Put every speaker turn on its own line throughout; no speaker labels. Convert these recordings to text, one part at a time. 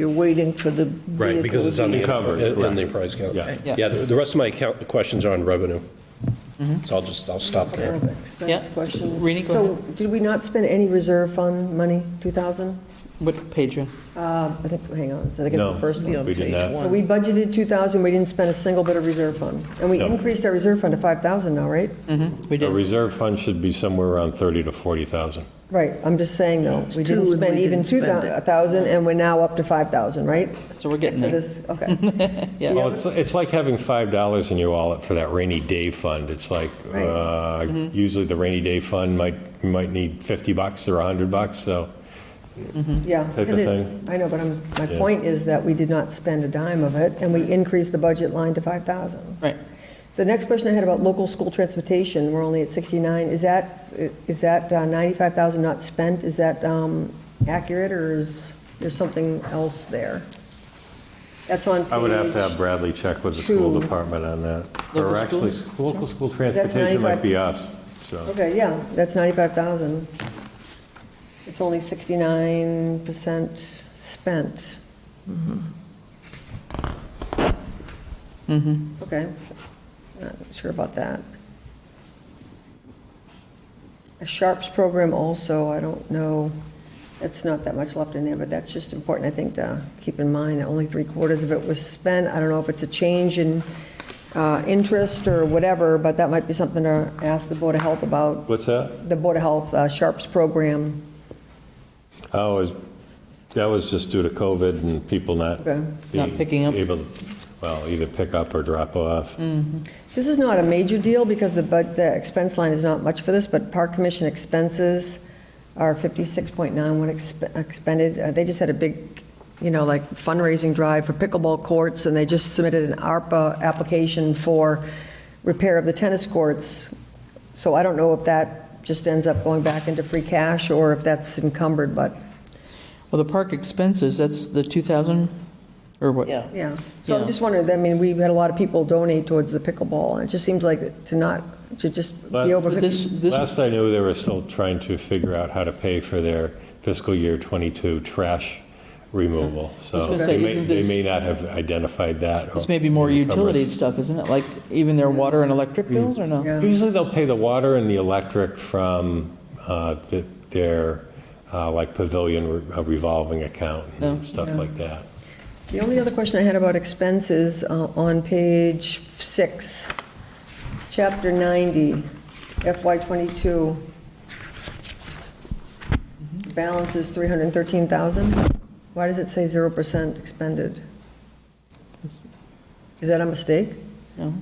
You're waiting for the
Right, because it's on the,
vehicle.
Covered,
on the
correct.
enterprise account.
Yeah.
Yeah.
Yeah, the the rest of my account, questions are on revenue. So I'll just, I'll stop there.
Expense
Yeah.
questions.
Rini, go
So
ahead.
did we not spend any reserve fund money, 2,000?
What page? you-
Uh, I think, hang on, I think it's
No,
the first
we
one.
did
page
not.
one.
So we budgeted 2,000, we didn't spend a single bit of reserve fund. And we
No.
increased our reserve fund to 5,000 now, right?
We
A
did.
reserve fund should be somewhere around 30 to 40,000.
Right, I'm just saying though,
two
we didn't
and we
spend even
didn't spend it.
2,000 and we're now up to 5,000, right?
So we're getting
For
there.
this, okay.
Mm-hmm. Yeah.
Well, it's, it's like having $5 in your wallet for that rainy day fund. It's like,
Right.
uh, usually the rainy day fund might, you might need 50 bucks or 100 bucks, so
Yeah.
type of thing.
I know, but I'm, my
Yeah.
point is that we did not spend a dime of it, and we increased the budget line to 5,000.
Right.
The next question I had about local school transportation, we're only at 69, is that, is that uh, 95,000 not spent? Is that um, accurate, or is there something else there? That's on page...
I would have to have Bradley check with the school
two.
department on that.
Local
Or actually,
schools?
local school transportation
95.
might be us, so.
Okay, yeah, that's 95,000. It's only 69% spent. Mm-hmm. Okay, not sure about that. A Sharps program also, I don't know, it's not that much left in there, but that's just important, I think, to keep in mind. Only three quarters of it was spent. I don't know if it's a change in uh, interest or whatever, but that might be something to ask the Board of Health about,
What's that?
the Board of Health uh, Sharps program.
Oh, is, that was just due to COVID and people not.
Okay.
Not
being
picking up.
Able, well, either pick up or drop off.
This is not a major deal because the, but the expense line is not much for this, but park commission expenses are 56.91 exp- expended. Uh, They just had a big, you know, like fundraising drive for pickleball courts, and they just submitted an ARPA application for repair of the tennis courts. So I don't know if that just ends up going back into free cash or if that's encumbered, but,
Well, the park expenses, that's the 2,000 or what?
Yeah.
yeah. So
Yeah.
I'm just wondering, I mean, we had a lot of people donate towards the pickleball, and it just seems like to not, to just
But-
be over 50.
This, this,
Last I knew, they were still trying to figure out how to pay for their fiscal year '22 trash removal, so
gonna
they
say,
may,
isn't
they
this-
may not have identified that.
this
or
may be more
encumbrance.
utility stuff, isn't it? Like even their water and electric bills or no?
Yeah.
Usually they'll pay the water and the electric from uh, th- their, uh, like pavilion re- uh, revolving account
Oh,
and stuff like that.
The only other question I had about expenses, uh, on page six, chapter 90, FY '22, balance is 313,000. Why does it say 0% expended? Is that a mistake?
No,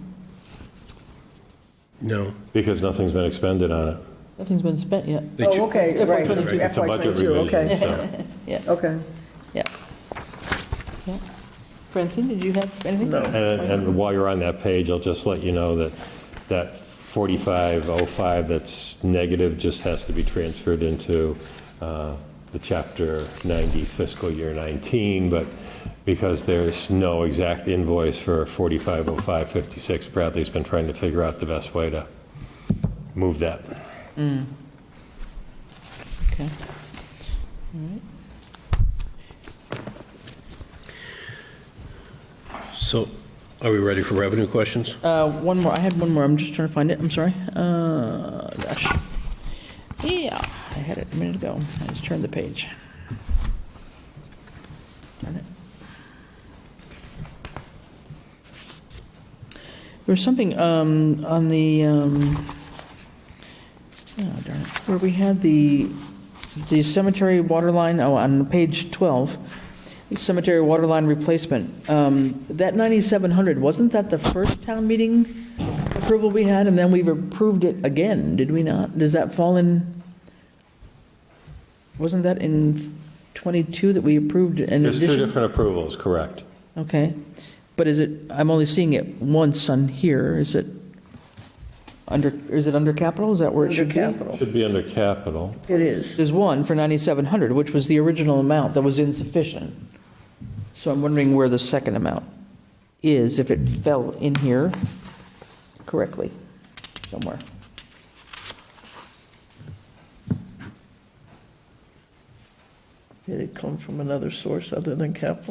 No.
Because nothing's been expended on it.
nothing's been spent yet.
They
Oh,
cho-
okay,
FY
right.
'22.
It's a
FY
budget
'22,
revision,
Okay,
so.
Yeah,
okay.
yeah. Yeah. Francine, did you have anything? No.
And and while you're on that page, I'll just let you know that that 4505 that's negative just has to be transferred into uh, the Chapter 90 fiscal year 19, but because there's no exact invoice for 450556, Bradley's been trying to figure out the best way to move that.
Okay. All right.
So are we ready for revenue questions?
Uh, One more, I had one more, I'm just trying to find it, I'm sorry. Uh, Gosh. Yeah, I had it a minute ago, I just turned the page. Darn it. There was something um, on the, um, oh darn it, where we had the, the cemetery water line, oh, on page 12, the cemetery water line replacement. Um, That 9,700, wasn't that the first town meeting approval we had, and then we've approved it again, did we not? Does that fall in, wasn't that in 22 that we approved an
There's two
addition?
different approvals, correct?
Okay, but is it, I'm only seeing it once on here, is it under, is it under capital, is that where it
Under
should be?
capital,
Should be under capital.
it is.
There's one for 9,700, which was the original amount that was insufficient. So I'm wondering where the second amount is, if it fell in here correctly, somewhere.
Did it come from another source other than capital?